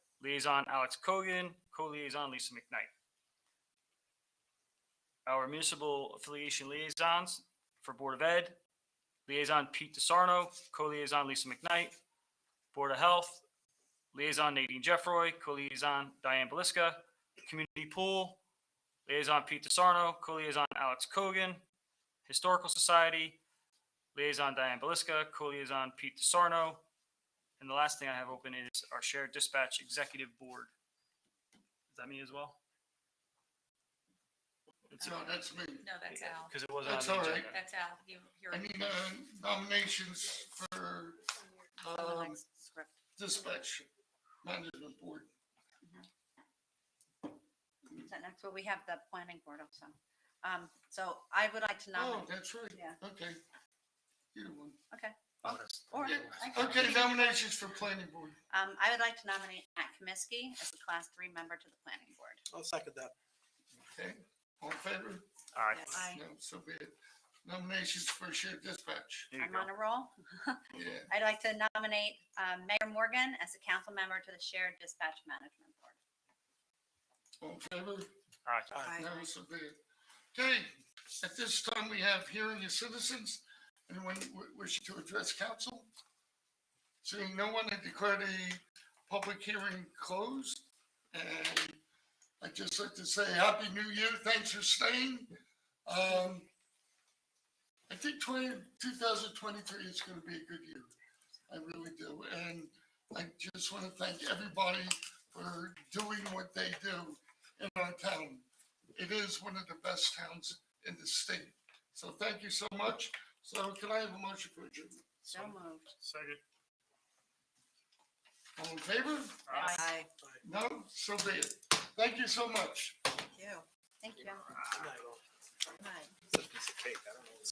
Liaison Alex Kogan, co-liaison Lisa McKnight. Our municipal affiliation liaisons for Board of Ed, liaison Pete DeSarno, co-liaison Lisa McKnight. Board of Health, liaison Nadine Jeffroy, co-liaison Diane Belisca. Community Pool, liaison Pete DeSarno, co-liaison Alex Kogan. Historical Society, liaison Diane Belisca, co-liaison Pete DeSarno. And the last thing I have open is our shared dispatch executive board. Is that me as well? It's, No, that's me. No, that's Al. because it wasn't on That's the all right. agenda. That's Al. You, you're. I need uh, nominations for um, Script. dispatch management board. So next, well, we have the planning board also. Um, so I would like to Oh, nominate, that's right. Yeah. Okay. Either one. okay, Oh, that's- or, Yeah, I- Okay, nominations for planning board. um, I would like to nominate Matt Kaminsky as a class three member to the planning board. I'll second that. Okay, all in favor? All right. Yes. Aye. No, so be it. Nominations for shared dispatch. There you I'm go. on a roll. Yeah, I'd like to nominate, um, Mayor Morgan as a council member to the shared dispatch management board. all in favor? All right. No, so be it. Okay, at this time, we have hearing of citizens. Anyone wi- wishing to address council? Seeing no one, I declare the public hearing closed. And I'd just like to say Happy New Year. Thanks for staying. Um, I think 20 2023 is going to be a good year. I really do. And I just want to thank everybody for doing what they do in our town it is one of the best towns in the state. So thank you so much. So can I have a motion for adjournment? So moved. Second. All in favor? Aye. No? So be it. Thank you so much. You. Thank you. Good night. Right. It's a piece of cake. I don't know.